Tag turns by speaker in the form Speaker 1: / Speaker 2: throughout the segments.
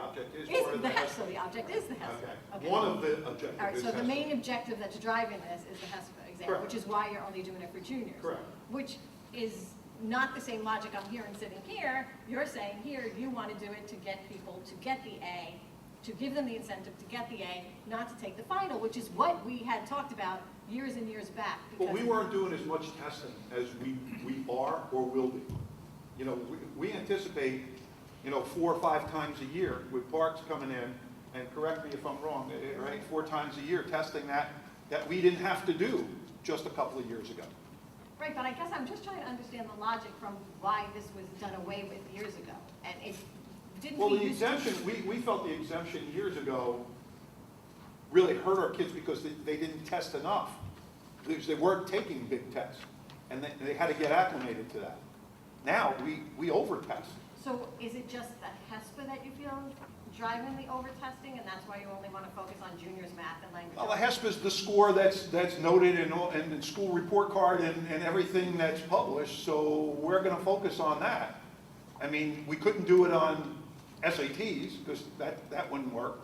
Speaker 1: object is part
Speaker 2: Is
Speaker 1: of
Speaker 2: the
Speaker 1: the
Speaker 2: HESP, so
Speaker 1: HESA.
Speaker 2: the object is the HESA.
Speaker 1: Okay,
Speaker 2: Okay.
Speaker 1: one of
Speaker 2: All
Speaker 1: the objectives
Speaker 2: right,
Speaker 1: is
Speaker 2: so the
Speaker 1: HESA.
Speaker 2: main objective that you're driving this is the HESA exam,
Speaker 1: Correct.
Speaker 2: which is why you're only doing it for juniors.
Speaker 1: Correct.
Speaker 2: Which is not the same logic I'm hearing sitting here. You're saying here, you want to do it to get people to get the A, to give them the incentive to get the A, not to take the final, which is what we had talked about years and years back.
Speaker 1: But we
Speaker 2: because-
Speaker 1: weren't doing as much testing as we, we are or will be. You know, we, we anticipate, you know, four or five times a year with parks coming in, and correct me if I'm wrong, eh, right, four times a year, testing that, that we didn't have to do just a couple of years ago.
Speaker 2: Right, but I guess I'm just trying to understand the logic from why this was done away with years ago. And it didn't
Speaker 1: Well,
Speaker 2: we
Speaker 1: the
Speaker 2: used to?
Speaker 1: exemption, we, we felt the exemption years ago really hurt our kids because they, they didn't test enough. Because they weren't taking big tests, and they, they had to get acclimated to that. Now, we, we over-test.
Speaker 2: So is it just the HESPA that you feel driving the overtesting, and that's why you only want to focus on juniors' math and language?
Speaker 1: Well, the HESP is the score that's, that's noted in, all- in the school report card and, and everything that's published, so we're gonna focus on that. I mean, we couldn't do it on SATs, because that, that wouldn't work.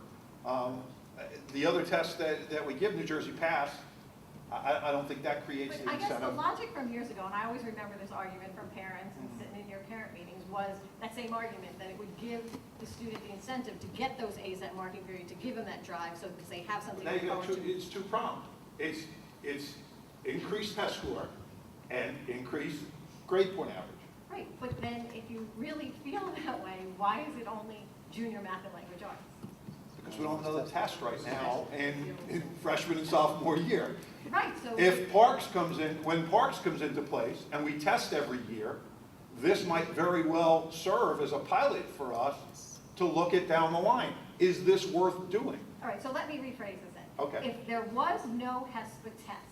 Speaker 1: Um, uh, The other tests that, that we give New Jersey Pass, I- I, I don't think that creates
Speaker 2: But
Speaker 1: the
Speaker 2: I guess the
Speaker 1: incentive.
Speaker 2: logic from years ago, and I always remember this argument from parents
Speaker 1: Mm-hmm.
Speaker 2: and sitting in your parent meetings, was that same argument, that it would give the student the incentive to get those As at marking period, to give them that drive, so that they have something
Speaker 1: Now
Speaker 2: to
Speaker 1: you
Speaker 2: look
Speaker 1: got
Speaker 2: forward
Speaker 1: two, E.
Speaker 2: to.
Speaker 1: it's two pronged. It's, it's increased test score and increased grade point average.
Speaker 2: Right, but then if you really feel that way, why is it only junior math and language arts?
Speaker 1: Because we don't know the test right now in in freshman and sophomore year.
Speaker 2: Right, so.
Speaker 1: If Parks comes in, when Parks comes into place and we test every year, this might very well serve as a pilot for us to look at down the line. Is this worth doing?
Speaker 2: All right, so let me rephrase this then.
Speaker 1: Okay.
Speaker 2: If there was no HESPA test,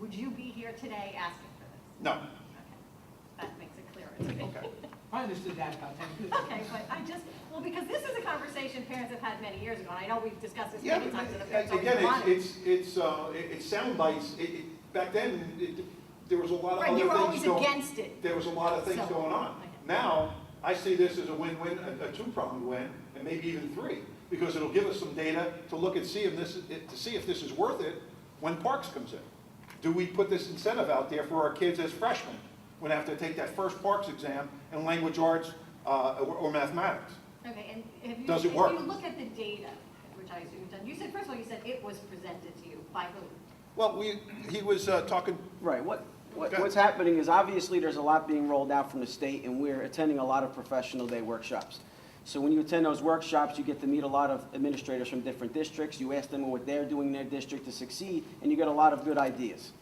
Speaker 2: would you be here today asking for this?
Speaker 1: No.
Speaker 2: Okay, That makes it clearer to me.
Speaker 1: Okay.
Speaker 3: I understood that about ten minutes. ago.
Speaker 2: Okay, but I just, well, because this is a conversation parents have had many years ago, and I know we've discussed this
Speaker 1: Yeah,
Speaker 2: many
Speaker 1: but,
Speaker 2: times in the
Speaker 1: uh,
Speaker 2: past.
Speaker 1: again, it's, it's, it's, uh, it- it's sound bites. It- it- Back then, it- there was a lot of
Speaker 2: Right,
Speaker 1: other
Speaker 2: you were always
Speaker 1: things going.
Speaker 2: against it.
Speaker 1: there was a lot of things
Speaker 2: So-
Speaker 1: going on.
Speaker 2: okay.
Speaker 1: Now, I see this as a win-win, a- a two-pronged win, and maybe even three, because it'll give us some data to look and see if this, is- to see if this is worth it when Parks comes in. Do we put this incentive out there for our kids as freshmen, when they have to take that first Parks exam in language arts uh, or or mathematics?
Speaker 2: Okay, and if you.
Speaker 1: Does it work?
Speaker 2: If you look at the data, which I assume you've done, you said, first of all, you said it was presented to you by who?
Speaker 1: Well, we, he was uh, talking,
Speaker 4: Right, what, what,
Speaker 1: Okay.
Speaker 4: what's happening is obviously there's a lot being rolled out from the state and we're attending a lot of professional day workshops. So when you attend those workshops, you get to meet a lot of administrators from different districts, you ask them what they're doing in their district to succeed, and you get a lot of good ideas.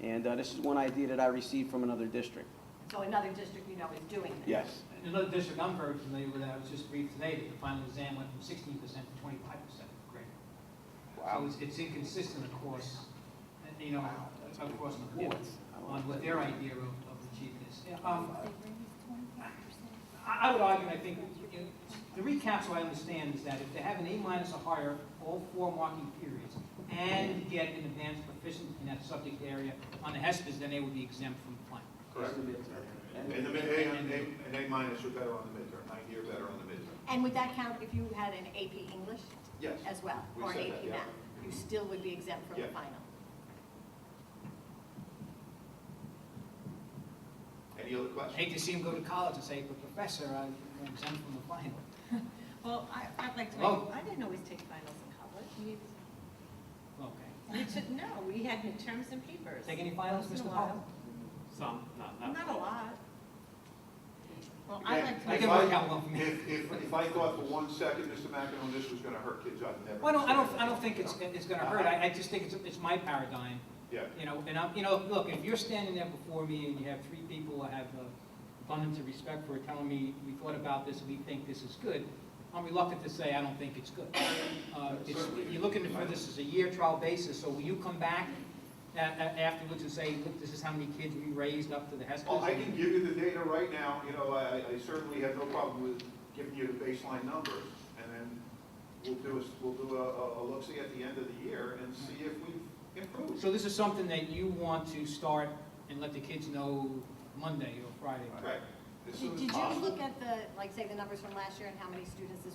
Speaker 4: And, uh, this is one idea that I received from another district.
Speaker 2: So another district you know is doing this.
Speaker 4: Yes.
Speaker 3: In another district I'm very familiar with, I was just briefed today that the final exam went from sixteen percent to twenty-five percent grade.
Speaker 1: Wow.
Speaker 3: So it's, it's inconsistent across, uh, you know, across the board on what their idea of, of achievement is. Yeah, um, I, I would argue, I think, you know, the recaps, what I understand is that if they have an A minus or higher, all four marking periods, and get an advanced proficient in that subject area on the HESPA's, then they would be exempt from the final.
Speaker 1: correct? And the, mid- A, and A- and A minus are better on the midterm, nine year better on the midterm.
Speaker 2: And would that count if you had an AP English
Speaker 1: Yes.
Speaker 2: as well,
Speaker 1: We
Speaker 2: or an
Speaker 1: said that,
Speaker 2: AP
Speaker 1: yeah.
Speaker 2: math? You still would be exempt from the
Speaker 1: Yeah.
Speaker 2: final?
Speaker 1: Any other
Speaker 3: I
Speaker 1: questions?
Speaker 3: hate to see him go to college and say, but professor, I'm exempt from the final.
Speaker 5: Well, I, I'd like to make,
Speaker 3: Well-
Speaker 5: I didn't always take finals in college. We-
Speaker 3: Okay.
Speaker 5: We took, no, we had midterms and papers.
Speaker 3: Take any finals,
Speaker 5: Once
Speaker 3: Mr.
Speaker 5: in a while.
Speaker 3: Paul?
Speaker 6: Some, not, not.
Speaker 5: Not a lot. Well, I like to.
Speaker 3: I
Speaker 1: If
Speaker 3: can work out one for me.
Speaker 1: If, if, if I thought for one second, Mr. McEnroe, this was gonna hurt kids, I'd never.
Speaker 3: Well, I don't, I don't, I don't think it's, it's gonna hurt, I, I just think it's, it's my paradigm,
Speaker 1: Yeah,
Speaker 3: you know, and I'm, you know, look, if you're standing there before me and you have three people I have uh, abundance of respect for telling me, we thought about this, we think this is good, I'm reluctant to say I don't think it's good. Uh, it's, you're looking for this as a year trial basis, so will you come back a- a- afterwards and say, look, this is how many kids we raised up to the HESPA's?
Speaker 1: well, I can give you the data right now, you know, I, I certainly have no problem with giving you the baseline numbers, and then we'll do a, we'll do a, a, a look-see at the end of the year and see if we've improved.
Speaker 3: So this is something that you want to start and let the kids know Monday or Friday?
Speaker 1: Right, as soon
Speaker 2: Did
Speaker 1: as
Speaker 2: did you
Speaker 1: possible.
Speaker 2: look at the, like, say, the numbers from last year and how many students this